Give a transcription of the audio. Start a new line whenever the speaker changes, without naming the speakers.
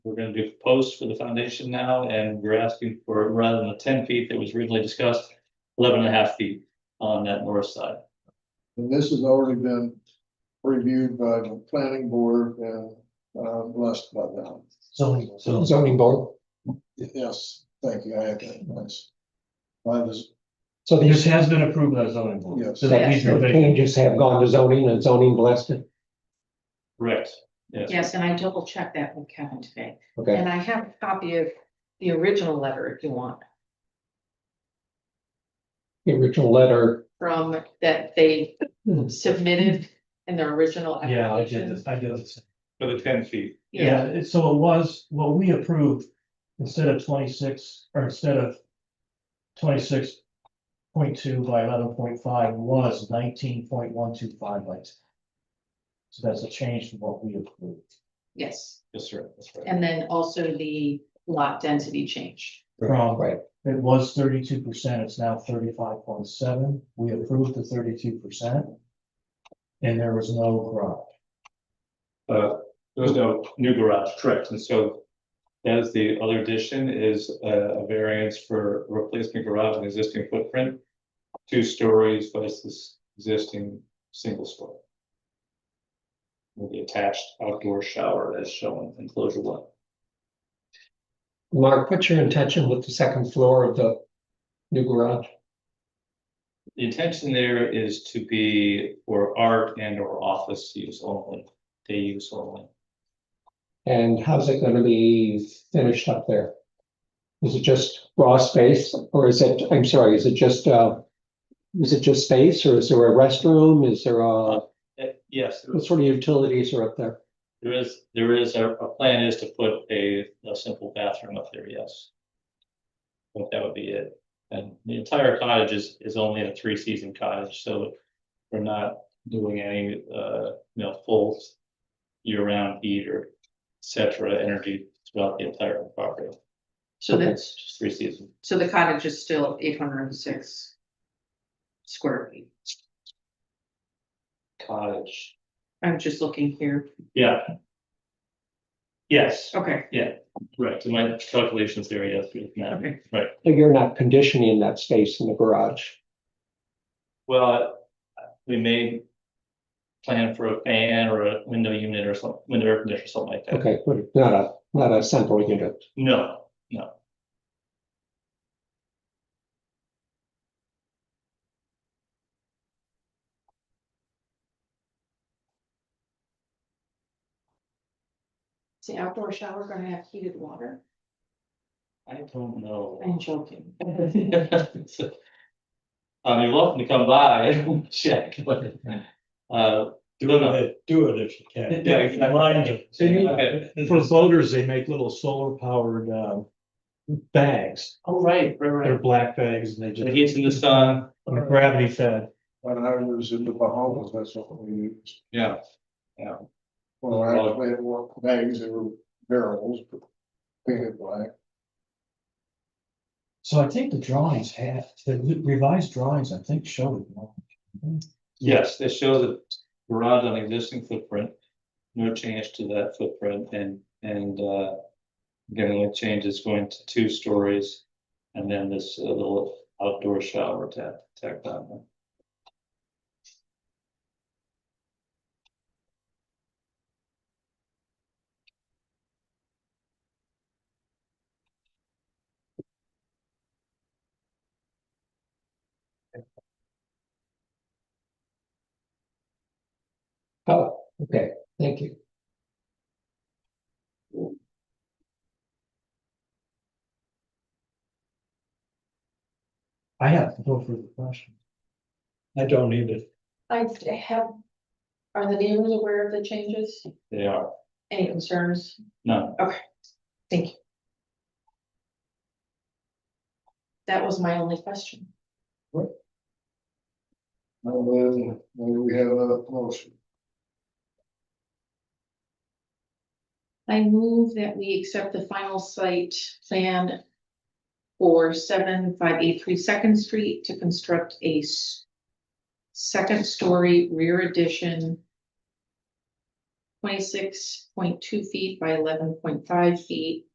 We're gonna do posts for the foundation now, and we're asking for, rather than the ten feet that was originally discussed, 11 and a half feet on that north side.
And this has already been reviewed by the planning board and uh, blessed by them.
Zoning.
So-
Zoning board.
Yes, thank you. I had that. Nice. By this,
So
This
these
has been approved by the zoning board.
Yes.
So that these provisions-
changes have gone to zoning and zoning blessed it.
Correct, yes.
Yes, and I double checked that with Kevin today,
Okay,
and I have a copy of the original letter if you want,
the original letter.
from that they submitted in their original.
Yeah, I did
application.
this, I did this.
For the ten feet.
Yeah, it- so it was, what we approved, instead of twenty-six, or instead of twenty-six point two by eleven point five was nineteen point one two five lights. So that's a change from what we approved
Yes,
Yes, sir, that's right.
and then also the lot density change.
from.
Right.
It was thirty-two percent, it's now thirty-five point seven, we approved the thirty-two percent. And there was no garage.
Uh, there was no new garage, correct, and so. That is the other addition is uh, a variance for replacement garage and existing footprint. Two stories versus existing single story. With the attached outdoor shower as shown in enclosure one.
Mark, what's your intention with the second floor of the new garage?
The intention there is to be for art and or office use only, day use only.
And how's it gonna be finished up there? Is it just raw space or is it, I'm sorry, is it just, uh, is it just space or is there a restroom? Is there a,
Uh, yes, there
what
is-
sort of utilities are up there?
there is, there is, our, our plan is to put a, a simple bathroom up there, yes. But that would be it, and the entire cottage is, is only a three-season cottage, so we're not doing any, uh, you know, full year-round heat or et cetera, energy throughout the entire property,
So
Okay.
that's,
just three-season.
so the cottage is still eight hundred and six square feet.
cottage.
I'm just looking here.
Yeah. Yes,
Okay,
right, so my calculations there, yes, we can have-
okay.
You're not conditioning that space in the garage.
well, we may. Plan for a fan or a window unit or some, window air conditioner, something like that,
Okay, but it's not a, not a central unit.
no,
Is the outdoor shower gonna have heated water?
I don't know.
I'm joking.
So, Um, you're welcome to come by, and check, but, uh, do it,
do it if you can.
Yeah, if you can.
Mind you.
So you- okay.
And For voters, they make little solar powered um bags.
oh, right, right,
They're
right,
black bags and they
the
just
heat's in the sun.
they're gravity fed.
when I was in the Bahamas, that's what we used.
Yeah.
Well, actually, it weren't bags, they were barrels, but painted black.
So I think the drawings have, the revised drawings, I think, show it. you know.
Yes, this shows a garage on existing footprint, no change to that footprint and, and, uh. Again, the only change is going to two stories and then this uh, little outdoor shower tap, tacked on there.
Oh, okay, thank you.
I have no further questions.
I don't need it.
I have, are the neighbors aware of the changes?
They are,
Any concerns?
no,
Thank you. That was my only question.
And then, then we have another motion.
I move that we accept the final site plan for seven five eight three Second Street to construct a s- second story rear addition twenty-six point two feet by eleven point five feet